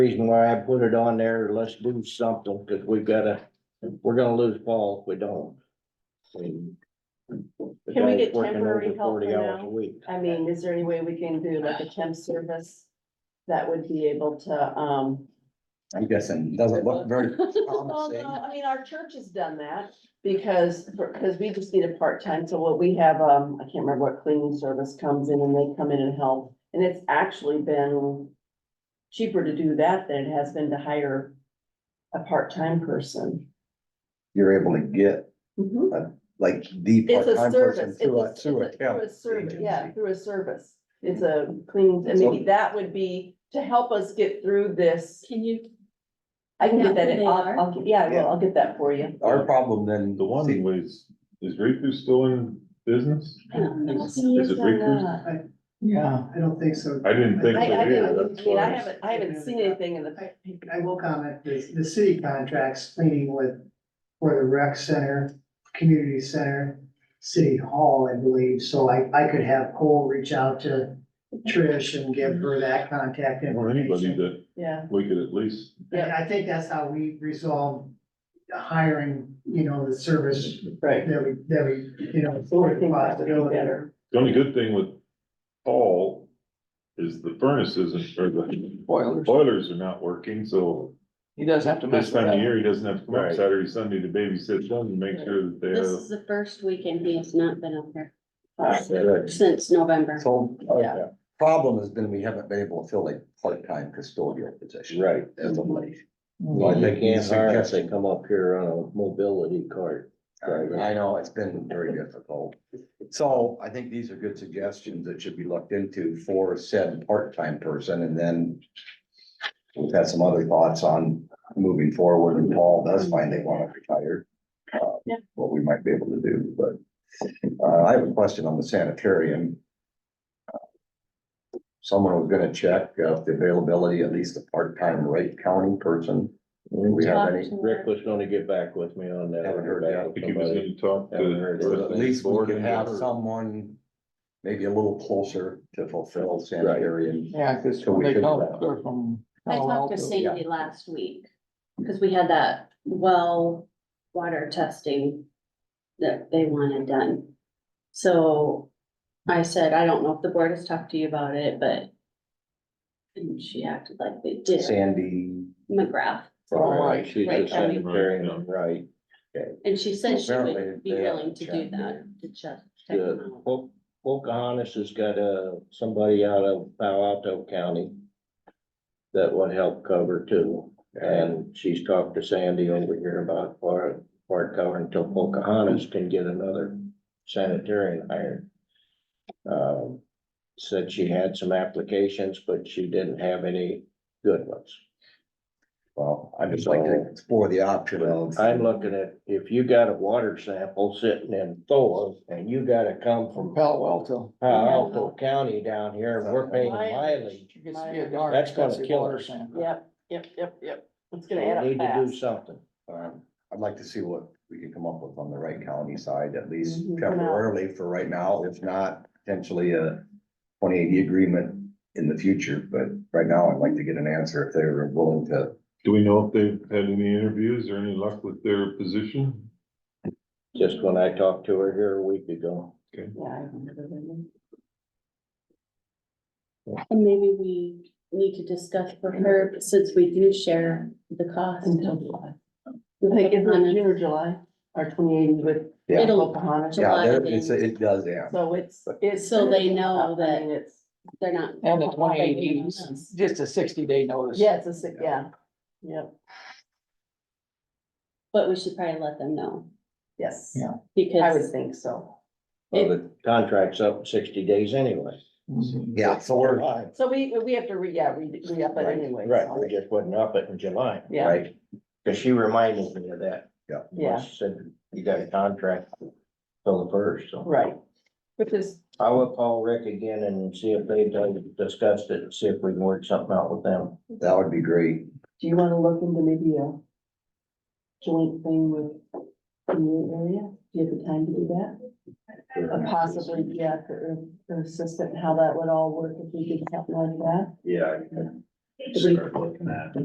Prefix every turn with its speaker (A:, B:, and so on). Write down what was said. A: reason why I put it on there, let's do something, cause we've gotta, we're gonna lose Paul if we don't. And the
B: Can we
A: guy's
B: get
A: working
B: temporary
A: over
B: help
A: 40
B: for
A: hours a
B: now?
A: week.
B: I mean, is there any way we can do like a temp service that would be able to, um.
C: I'm guessing, it doesn't look very
B: Well,
C: promising.
B: no, I mean, our church has done that because, because we just need a part-time, so what we have, um, I can't remember what cleaning service comes in and they come in and help. And it's actually been cheaper to do that than it has been to hire a part-time person.
C: You're able to get
B: Mm-hmm.
C: like the
B: It's a
C: part-time person
B: service, it's a,
C: through a,
B: it's a-
C: through a temp.
B: through a service, yeah,
C: agency.
B: through a service. It's a cleaning, and maybe that would be to help us get through this.
D: Can you,
B: I can get
D: Is that
B: that,
D: who
B: in-
D: they
B: I'll,
D: are?
B: I'll, yeah, well, I'll get that for you.
C: Our problem then,
E: The one
C: see,
E: was, is Riku still in business?
B: I don't know if
E: Is
B: he
E: is
B: is
E: it
B: or
E: Riku's?
B: not.
F: Yeah, I don't think so.
E: I didn't think
B: uh, I, I
E: so
B: didn't,
E: either,
B: I
E: that's
B: mean, I
E: why.
B: haven't, I haven't seen anything in the,
F: I will comment, the, the city contracts cleaning with, for the rec center, community center, city hall, I believe, so I, I could have Cole reach out to Trish and give her that contact
E: Or anybody
F: information.
E: that
B: yeah,
E: we could at least,
F: And I think that's how we resolve hiring, you know, the service
B: right.
F: that we, that we, you know,
B: So
F: for
B: I
F: the
B: think that would be
F: possibility.
B: better.
E: the only good thing with Paul is the furnaces and, or the
G: Boilers.
E: boilers are not working, so
G: He does have to mess
E: this
G: with
E: time of
G: that.
E: year, he doesn't have to come up
C: Right.
E: Saturday, Sunday to babysit them and make sure that they
D: this
E: have.
D: is the first weekend he has not been up there
B: Uh,
C: the
D: since November.
C: whole
B: Yeah.
C: uh, problem has been we haven't been able to fill a part-time custodial position.
A: Right.
C: As of late.
A: Well,
C: I
A: they
C: think he's
A: can't hire if they
C: suggesting-
A: come up here on a mobility cart. Right.
C: I know, it's been very difficult. So I think these are good suggestions that should be looked into for said part-time person and then. We've had some other thoughts on moving forward and Paul does find they want to retire. uh,
B: Yeah.
C: What we might be able to do, but uh, I have a question on the sanitarium. Someone was gonna check uh, the availability, at least a part-time rate counting person. Do we have any?
A: Rick was gonna get back with me on that.
C: Haven't heard
E: I think he was gonna talk
A: Haven't heard
C: Or at
E: to.
A: anything.
C: least we
E: Board
C: can have
E: member.
C: someone maybe a little closer to fulfill sanitarium.
G: Yeah, cause
C: So
G: when
C: we
G: they
C: could-
G: come, they're from.
D: I
G: Palo
D: talked to
G: Alto.
D: Sandy last week, because we had that well water testing that they wanted done. So I said, I don't know if the board has talked to you about it, but and she acted like they did,
C: Sandy,
D: McGrath,
A: Right, she's
D: Right,
A: the
D: Kelly.
A: secretary, right.
D: and she said she
C: Apparently
D: would be
C: they
D: willing
C: haven't
D: to do
C: checked.
D: that, to check. check them
A: The
D: out.
A: Po- Pocahontas has got a, somebody out of Palo Alto County that would help cover too. And she's talked to Sandy over here about part, part cover until Pocahontas can get another sanitarian hired. Um, said she had some applications, but she didn't have any good ones.
C: well, I'd just like to explore the option of.
A: I'm looking at, if you got a water sample sitting in Thor and you gotta come
G: From
A: from
G: Palo Alto.
A: Palo Alto Uh, County down here, and we're paying mileage.
G: She gets to be a darn
A: That's gonna
G: expensive
A: kill
G: water
A: us.
G: sample.
B: Yep, yep, yep, yep. It's
A: We
B: gonna add
A: need
B: up
A: to do
B: fast.
A: something.
C: um, I'd like to see what we can come up with on the Wright County side, at least
G: Mm-hmm.
B: Mhm.
C: temporarily for right now, if not potentially a twenty eighty agreement in the future, but right now I'd like to get an answer if they're willing to.
E: Do we know if they've had any interviews or any luck with their position?
A: Just when I talked to her here a week ago.
B: Yeah, I remember that.
D: And maybe we need to discuss for her, since we do share the cost.
B: Until July. I think it's in June or July, or twenty-eight with
C: Yeah.
D: It'll,
B: Pocahontas.
C: Yeah,
D: July
C: there- it's,
D: meeting.
C: it does, yeah.
B: So it's, it's.
D: So they know
B: I
D: that-
B: mean, It's,
D: they're not.
G: And the twenty eighty, just a sixty day notice.
B: yeah, it's a, si- yeah, yep,
D: But we should probably let them know,
B: yes.
G: Yeah.
B: I would
D: because
B: think so.
A: Well, the contract's up in sixty days anyway.
F: Uhum.
G: Mhm.
C: Yeah, so we're,
A: Right,
B: So we, we have to re, yeah, re, re-up it anyway. so-
A: we just wouldn't up it in July,
B: Yeah,
C: right,
A: because she reminded me of that.
C: Yeah.
B: Yeah.
A: She said, you got a contract till the first, so.
B: right. Which is,
A: I will call Rick again and see if they've done- discussed it, and see if we can work something out with them.
C: that would be great.
B: do you wanna look into maybe a joint thing with the new area? Do you have the time to do that? Or Possibly, yeah, the, the assistant, how that would all work if we could help like that.
A: Yeah.
H: we-
B: start looking at.